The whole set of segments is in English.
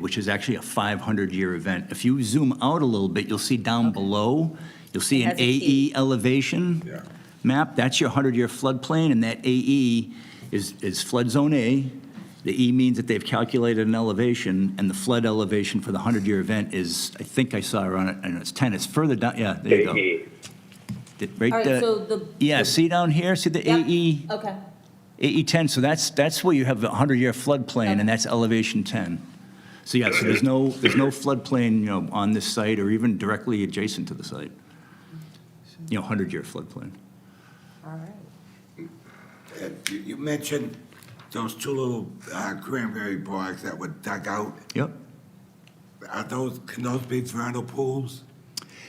which is actually a 500-year event. If you zoom out a little bit, you'll see down below, you'll see It an has a AE key. elevation map. That's your 100-year floodplain, and that AE is, is flood zone A. The E means that they've calculated an elevation, and the flood elevation for the 100-year event is, I think I saw on it, and it's 10, it's further down, yeah, there you E. go. AE. Did- Right All right, there. so the- Yeah, see down here, see the E Yep. AE? Okay. AE 10, E so that's, that's where you have the 100-year floodplain, Okay. and that's elevation 10. So yeah, so there's no, there's no floodplain, you know, on this site or even directly adjacent to the site. You know, 100-year floodplain. All right. And You you mentioned those two little uh, cranberry bogs that were dug out. Yep. Are those, can those be vernal pools?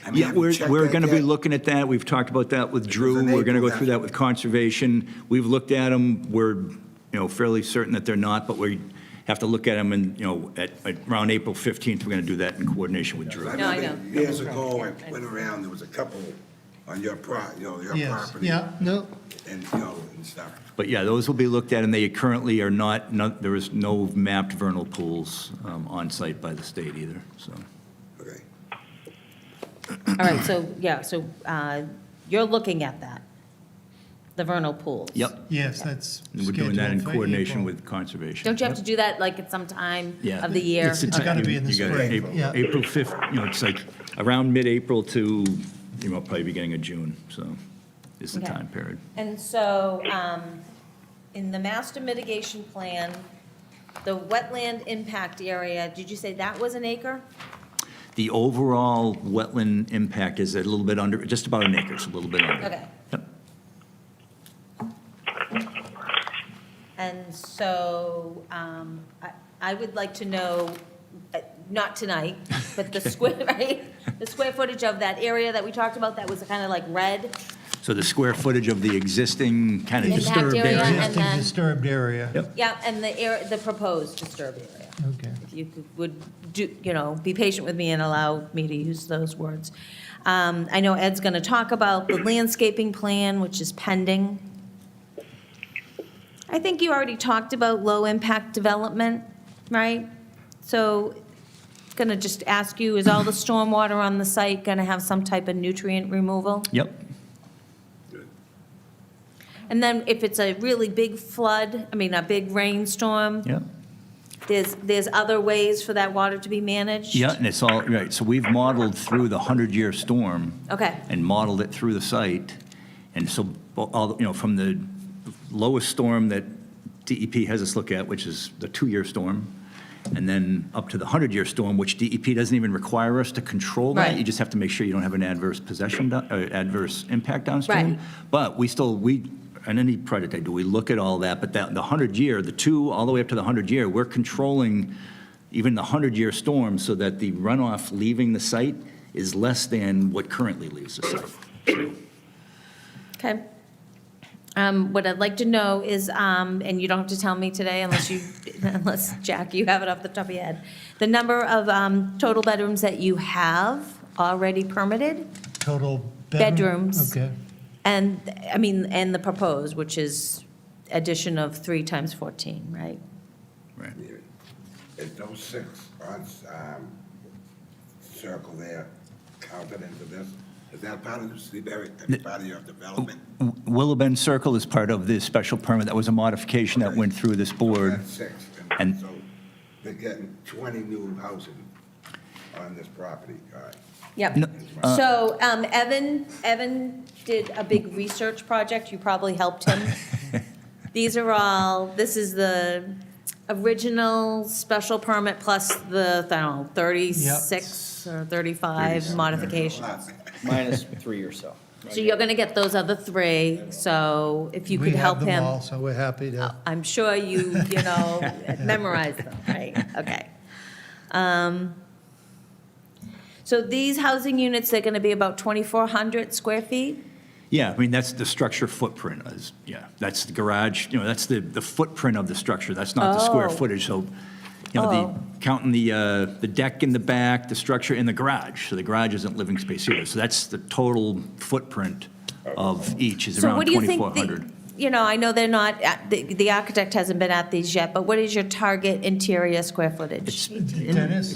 I mean, Yeah, have you we're, checked we're that going to be yet? looking at that. We've talked about that with Drew. in We're going to April, go through that's- that with conservation. We've looked at them. We're, you know, fairly certain that they're not, but we have to look at them and, you know, at, at around April 15th, we're going to do that in coordination with Drew. No, I remember know. Years Yeah, ago, I yeah, I went know. around, there was a couple on your pro, you know, your Yes, property. yeah, no, And, you know, and stuff. But yeah, those will be looked at, and they currently are not, not, there is no mapped vernal pools um, on site by the state either, so. Okay. All right, so, yeah, so uh, you're looking at that, the vernal pools. Yep, yes, that's. and we're doing that in scheduled for coordination April. with conservation. Don't you have to do that like at some time Yeah. of the year? It's It's Okay. gotta be in the you gotta- spring, April- yeah. April 5th, you know, it's like around mid-April to, you know, probably beginning of June, so is the Okay. time period. And so, um, in the master mitigation plan, the wetland impact area, did you say that was an acre? The overall wetland impact is a little bit under, just about an acre, it's a little bit under. Okay. Yep. And so, um, I, I would like to know, uh, not tonight, but the square, right? The square footage of that area that we talked about that was kind of like red. So the square footage of the existing kind of Impact disturbed area area. and Existing then- disturbed area. Yep. Yeah, and the air, the proposed disturbed area. Okay. If you could- would do, you know, be patient with me and allow me to use those words. Um, I know Ed's going to talk about the landscaping plan, which is pending. I think you already talked about low-impact development, right? So going to just ask you, is all the stormwater on the site going to have some type of nutrient removal? Yep. And then if it's a really big flood, I mean, a big rainstorm, Yep. there's, there's other ways for that water to be managed? Yeah, and it's all, right, so we've modeled through the 100-year storm Okay. and modeled it through the site. And so, all, you know, from the lowest storm that DEP has us look at, which is the two-year storm, and then up to the 100-year storm, which DEP doesn't even require us to control that. Right. You just have to make sure you don't have an adverse possession, down- uh, adverse impact downstream. Right. But we still, we, on any project I do, we look at all that, but that, the 100-year, the two, all the way up to the 100-year, we're controlling even the 100-year storm so that the runoff leaving the site is less than what currently leaves the site. Okay. Um, What I'd like to know is, um, and you don't have to tell me today unless you, unless, Jack, you have it off the top of your head, the number of um, total bedrooms that you have already permitted, Total bedroom? Bedrooms. Okay, and, I mean, and the proposed, which is addition of three times 14, right? Right. Is those six on, um, circle there counted into this? Is that part of the Seabury, part of your development? Willow Bend Circle is part of the special permit. That was a modification that went through this board. That's six. And- And so they're getting 20 new housing on this property, all right. Yep. No, uh, So um, Evan, Evan did a big research project, you probably helped him. These are all, this is the original special permit plus the, I don't know, 36 or 35 modifications. minus three or so. So you're going to get those other three, so if you we could have help them him. Uh, all, so we're happy to, I'm sure you, you know, memorize them, right? Okay. Um, So these housing units, they're going to be about 2,400 square feet? Yeah, I mean, that's the structure footprint is, yeah, that's the garage, you know, that's the, the footprint of the structure. That's not the square Oh. footage, so, you know, Oh. the, counting the, uh, the deck in the back, the structure in the garage. So the garage isn't living space either. So that's the total footprint of each is So around what do you think the- 2,400. you know, I know they're not, at- the, the architect hasn't been at these yet, but what is your target interior square footage? It's- Dennis?